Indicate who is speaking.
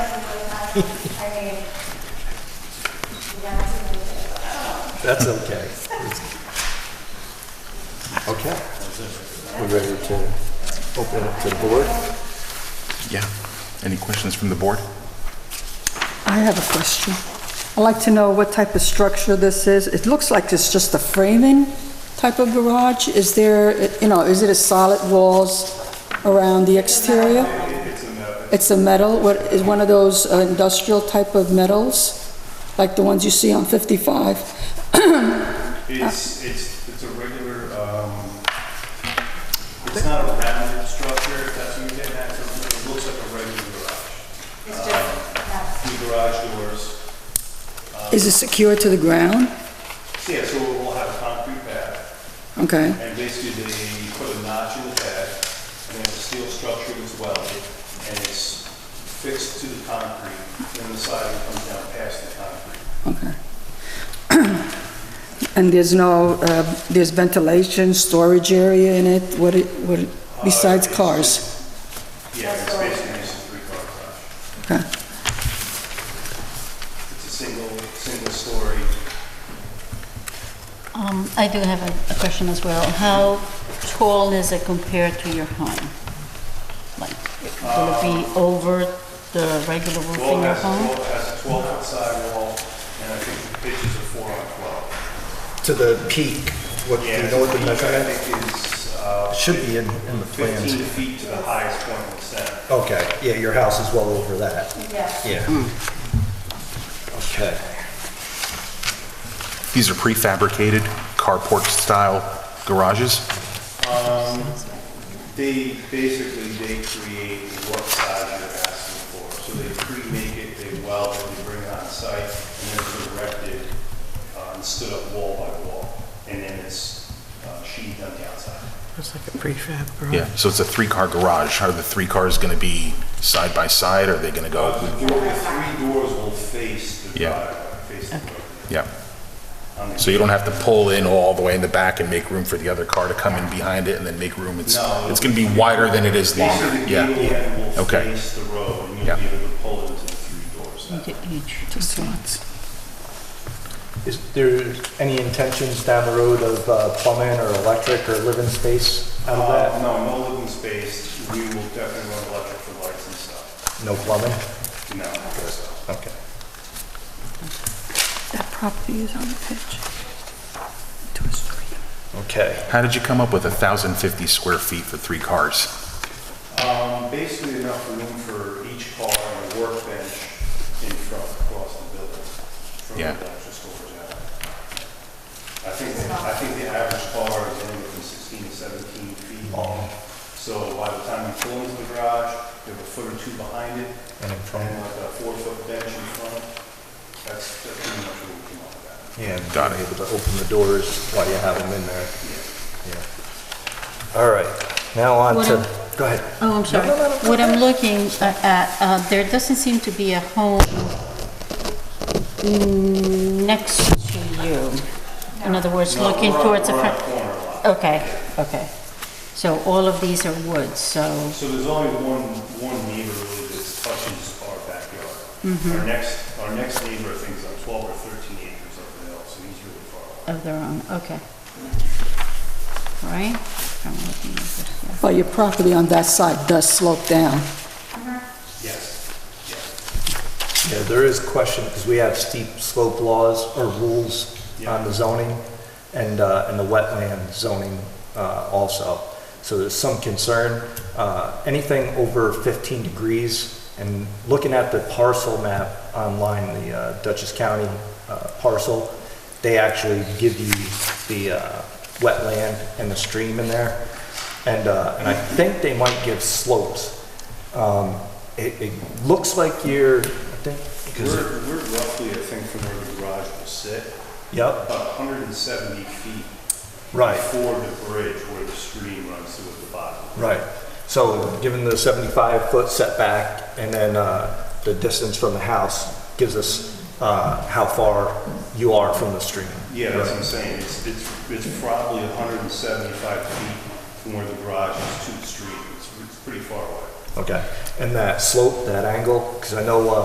Speaker 1: I mean, you have to move it.
Speaker 2: That's okay.
Speaker 3: Okay. We're ready to open up to the board.
Speaker 4: Yeah. Any questions from the board?
Speaker 5: I have a question. I'd like to know what type of structure this is. It looks like it's just a framing type of garage. Is there, you know, is it a solid walls around the exterior? It's a metal, what, is one of those uh, industrial type of metals, like the ones you see on 55?
Speaker 6: It's, it's, it's a regular, um, it's not a rounded structure, if that's what you're getting at, it looks like a regular garage.
Speaker 1: It's just, yeah,
Speaker 6: Two garage doors,
Speaker 5: Is it secure to the ground?
Speaker 6: yeah, so we'll have a concrete pad,
Speaker 5: Okay,
Speaker 6: and basically they put a notch in the pad, and then a steel structure as well, and it's fixed to the concrete, and the siding comes down past the concrete.
Speaker 5: okay. And there's no, uh, there's ventilation, storage area in it, what, it- what, it- besides cars?
Speaker 6: Yeah, it's basically just a three-car garage.
Speaker 5: Okay.
Speaker 6: It's a single, single-story,
Speaker 7: Um, I do have a, a question as well. How tall is it compared to your home? Like, will it be over the regular roof in
Speaker 6: Well,
Speaker 7: your
Speaker 6: it has,
Speaker 7: home?
Speaker 6: well, it has a twelve foot sidewall, and I think the pitches are four on twelve.
Speaker 3: To the peak, what, do you know what the
Speaker 6: I
Speaker 3: measurement
Speaker 6: think is, uh,
Speaker 3: should be in, in the plans?
Speaker 6: fifteen feet to the highest point in the center.
Speaker 3: Okay, yeah, your house is well over that,
Speaker 1: yeah.
Speaker 3: yeah. Okay.
Speaker 4: These are prefabricated carport-style garages.
Speaker 6: They, basically, they create what size you're asking for, so they pre-make it, they weld it, they bring it on site, and then it's erected, uh, and stood up wall by wall, and then it's uh, sheathed on the outside.
Speaker 8: It's like a prefab garage.
Speaker 4: Yeah. So it's a three-car garage. Are the three cars going to be side by side? Are they going to
Speaker 6: Uh,
Speaker 4: go?
Speaker 6: The door, the three doors will face the
Speaker 4: Yeah.
Speaker 6: driveway, face the road.
Speaker 4: Yeah.
Speaker 6: on the-
Speaker 4: So you don't have to pull in all the way in the back and make room for the other car to come in behind it and then make room. It's,
Speaker 6: No.
Speaker 4: it's going to be wider than it is long.
Speaker 6: Basically, the
Speaker 4: Yeah.
Speaker 6: gable end will
Speaker 4: Okay.
Speaker 6: face the road, and
Speaker 4: Yeah.
Speaker 6: you'll be able to pull into the three doors.
Speaker 7: You did each.
Speaker 5: Just lots.
Speaker 3: Is there any intentions down the road of uh, plumbing or electric or living space out of
Speaker 6: Uh,
Speaker 3: that?
Speaker 6: No, no living space, we will definitely run electric for lights and stuff.
Speaker 3: No plumbing?
Speaker 6: No, so.
Speaker 3: Okay.
Speaker 5: That property is on the pitch. Two or three.
Speaker 3: Okay.
Speaker 4: How did you come up with 1,050 square feet for three cars?
Speaker 6: Um, Basically enough room for each car and a workbench in front across the building. from the
Speaker 4: Yeah.
Speaker 6: actual storage area. I think, I think the average car is anywhere from 16 to 17 feet long. So by the time you pull into the garage, you have a foot or two behind it,
Speaker 3: And in front.
Speaker 6: and like a four-foot bench in front. That's, that's pretty much what we came up with.
Speaker 3: Yeah, and
Speaker 4: Got
Speaker 3: being
Speaker 4: it.
Speaker 3: able to open the doors while you have them in there. Yeah. All right, now on
Speaker 7: What
Speaker 3: to,
Speaker 7: am-
Speaker 3: go ahead.
Speaker 7: Oh, I'm sorry. What I'm looking a- at, uh, there doesn't seem to be a home mm, next to you. In other words,
Speaker 6: No,
Speaker 7: looking
Speaker 6: we're on-
Speaker 7: towards the
Speaker 6: we're on
Speaker 7: front.
Speaker 6: corner lot.
Speaker 7: Okay, okay. So all of these are woods, so,
Speaker 6: So there's only one, one neighbor really that touches our backyard. Our next, our next neighbor, I think, is on twelve or thirteen acres up the hill, so he's really far away.
Speaker 7: of their own, okay. Right? I'm looking at this, yeah.
Speaker 5: But your property on that side does slope down.
Speaker 6: Yes, yes.
Speaker 3: Yeah, there is question, because we have steep slope laws or rules on the zoning and, uh, and the wetland zoning, uh, also. So there's some concern, uh, anything over fifteen degrees, and looking at the parcel map online, the uh, Dutchess County, uh, parcel, they actually give you the, uh, wetland and the stream in there. And, uh, and I think they might give slopes. Um, it, it looks like you're, I think, because,
Speaker 6: We're, we're roughly, I think, from where the garage will sit,
Speaker 3: yep,
Speaker 6: about hundred and seventy feet
Speaker 3: right,
Speaker 6: before the bridge where the stream runs through at the bottom.
Speaker 3: right. So given the 75-foot setback and then uh, the distance from the house gives us uh, how far you are from the stream.
Speaker 6: Yeah, that's what I'm
Speaker 3: Right.
Speaker 6: saying, it's, it's, it's probably hundred and seventy-five feet from where the garage is to the stream, it's, it's pretty far away.
Speaker 3: Okay. And that slope, that angle, because I know uh,